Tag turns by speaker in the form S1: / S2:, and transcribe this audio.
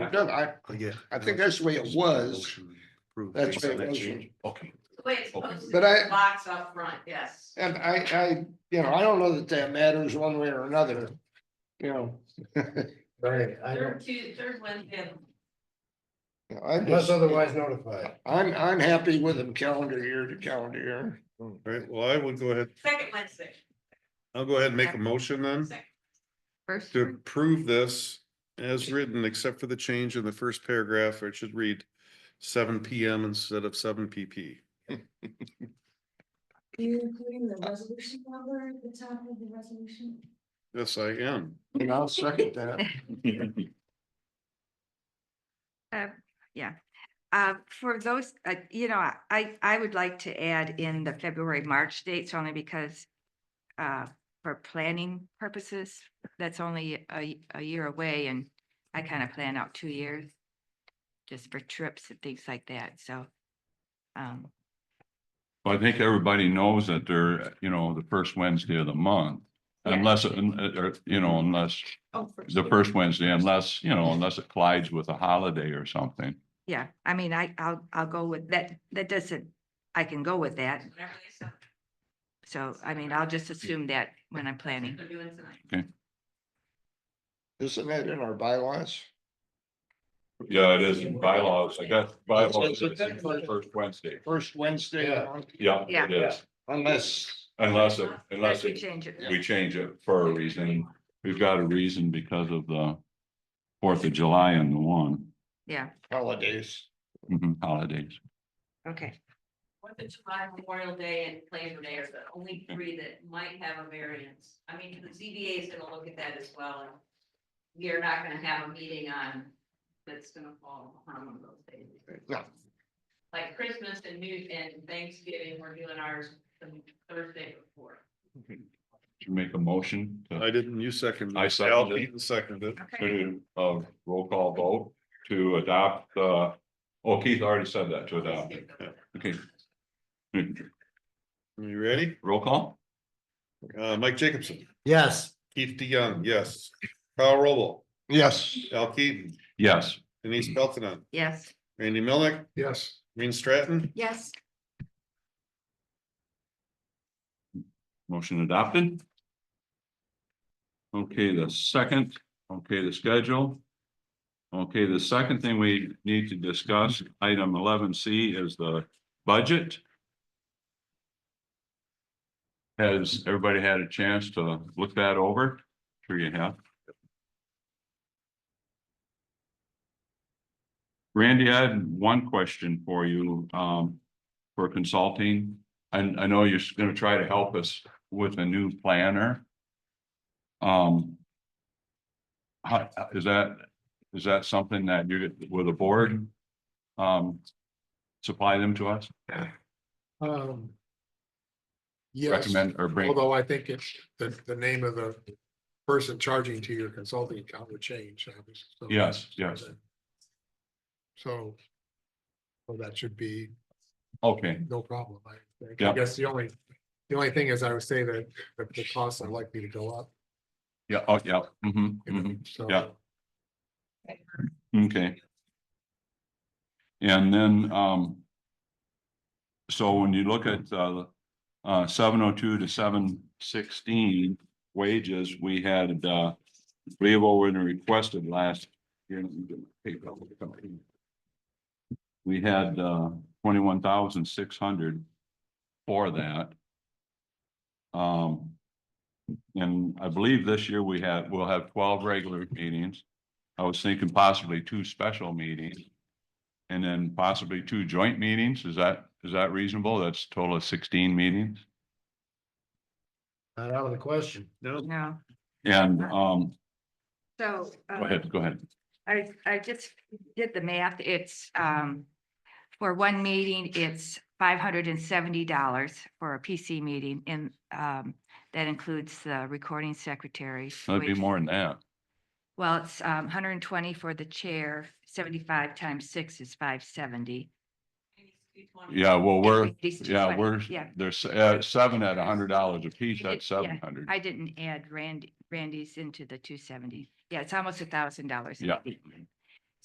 S1: it does, I,
S2: Yeah.
S1: I think that's the way it was, that's the way it was.
S2: Okay.
S3: The way it's posted,
S1: But I-
S3: the box up front, yes.
S1: And I, I, you know, I don't know that that matters one way or another, you know.
S4: Right, I
S3: Third
S4: don't,
S3: Tuesday, third Wednesday. of-
S1: I'm
S4: unless
S1: just,
S4: otherwise notified.
S1: I'm, I'm happy with them calendar year to calendar year.
S2: All right, well, I will go ahead,
S3: Second Wednesday.
S2: I'll go ahead and make a motion
S1: Hmm?
S2: then
S3: second-
S5: First,
S2: to
S5: one.
S2: approve this as written, except for the change in the first paragraph, where it should read seven P M instead of seven P P.
S6: Are you including the resolution number at the top of the resolution?
S2: Yes, I am.
S1: And I'll second that.
S5: yeah. Uh, for those, uh, you know, I, I would like to add in the February, March dates only because uh, for planning purposes, that's only a, y- a year away and I kind of plan out two years just for trips and things like that, so. Um,
S7: Well, I think everybody knows that they're, you know, the first Wednesday of the month.
S5: Yeah.
S7: Unless, un- uh, or, you know, unless, the first Wednesday, unless, you know, unless it collides with a holiday or something.
S5: yeah, I mean, I, I'll, I'll go with that, that doesn't, I can go with that,
S3: whatever they said,
S5: so I mean, I'll just assume that when I'm planning.
S3: they're doing tonight.
S1: Isn't that in our bylaws?
S7: Yeah, it is in bylaws. I got
S1: bylaws. It's the first
S7: Wednesday.
S1: First Wednesday, of the
S4: Yeah.
S1: month,
S7: Yeah,
S5: it
S7: it is.
S1: unless,
S7: Unless,
S3: it-
S7: unless
S5: We change it.
S7: we change it for a reason. We've got a reason because of the Fourth of July and the one
S5: Yeah,
S1: holidays.
S7: mhm, holidays.
S5: okay.
S3: Fourth of July, Memorial Day and Labor Day are the only three that might have a variance. I mean, the ZBA is gonna look at that as well. and We are not gonna have a meeting on, that's gonna fall on one of those days.
S1: Yeah.
S3: Like Christmas and New, and Thanksgiving, we're doing ours the Thursday before.
S7: Should we make a motion to
S2: I didn't, you seconded.
S7: I
S2: it.
S7: seconded
S2: Al
S7: it.
S2: Pete Seconded.
S5: Okay.
S7: to, uh, roll call vote to adopt, uh, oh, Keith already said that, to adopt. Okay. Mm-hmm.
S2: You ready?
S7: Roll call?
S2: Uh, Mike Jacobson,
S4: Yes.
S2: Keith DeYoung, yes. Kyle Robo,
S1: Yes,
S2: Al Keaton,
S7: Yes.
S2: Denise Pelton,
S5: Yes.
S2: Randy Milnick,
S4: Yes.
S2: Green Stratton,
S5: Yes.
S7: Motion adopted. Okay, the second, okay, the schedule. Okay, the second thing we need to discuss, item eleven C is the budget. Has everybody had a chance to look that over? Sure you have. Randy, I had one question for you, um, for consulting. And I know you're gonna try to help us with a new planner. Um. How, is that, is that something that you're, with the board? Um. Supply them to us,
S4: Um. Yes,
S7: recommend or bring,
S4: although I think it's the, the name of the person charging to your consulting account would change. obviously, so-
S7: Yes, yes.
S4: So. Well, that should be
S7: okay,
S4: no problem, I think.
S7: Yeah.
S4: I guess the only, the only thing is I would say that the- the costs are likely to go up.
S7: yeah, oh, yeah, mhm,
S4: you know,
S7: mhm,
S4: so-
S7: yeah. okay. And then, um. So when you look at, uh, uh, seven oh two to seven sixteen wages, we had, uh. Levo when requested last year. We had, uh, twenty-one thousand six hundred for that. Um. And I believe this year we have, we'll have twelve regular meetings. I was thinking possibly two special meetings. And then possibly two joint meetings. Is that, is that reasonable? That's a total of sixteen meetings.
S4: Not out of the question.
S2: no,
S5: No,
S7: And, um,
S5: so. uh,
S7: go ahead, go ahead.
S5: I, I just did the math. It's, um, for one meeting, it's five hundred and seventy dollars for a PC meeting and, um, that includes the recording secretary.
S7: That'd be
S5: which-
S7: more than that.
S5: Well, it's, um, hundred and twenty for the chair, seventy-five times six is five seventy.
S7: Yeah, well, we're,
S5: These two
S7: yeah,
S5: twenty.
S7: we're,
S5: Yeah,
S7: there's, uh, seven at a hundred dollars a piece,
S5: I did-
S7: that's
S5: yeah,
S7: seven hundred.
S5: I didn't add Randy, Randy's into the two seventy. Yeah, it's almost a thousand dollars.
S7: Yeah.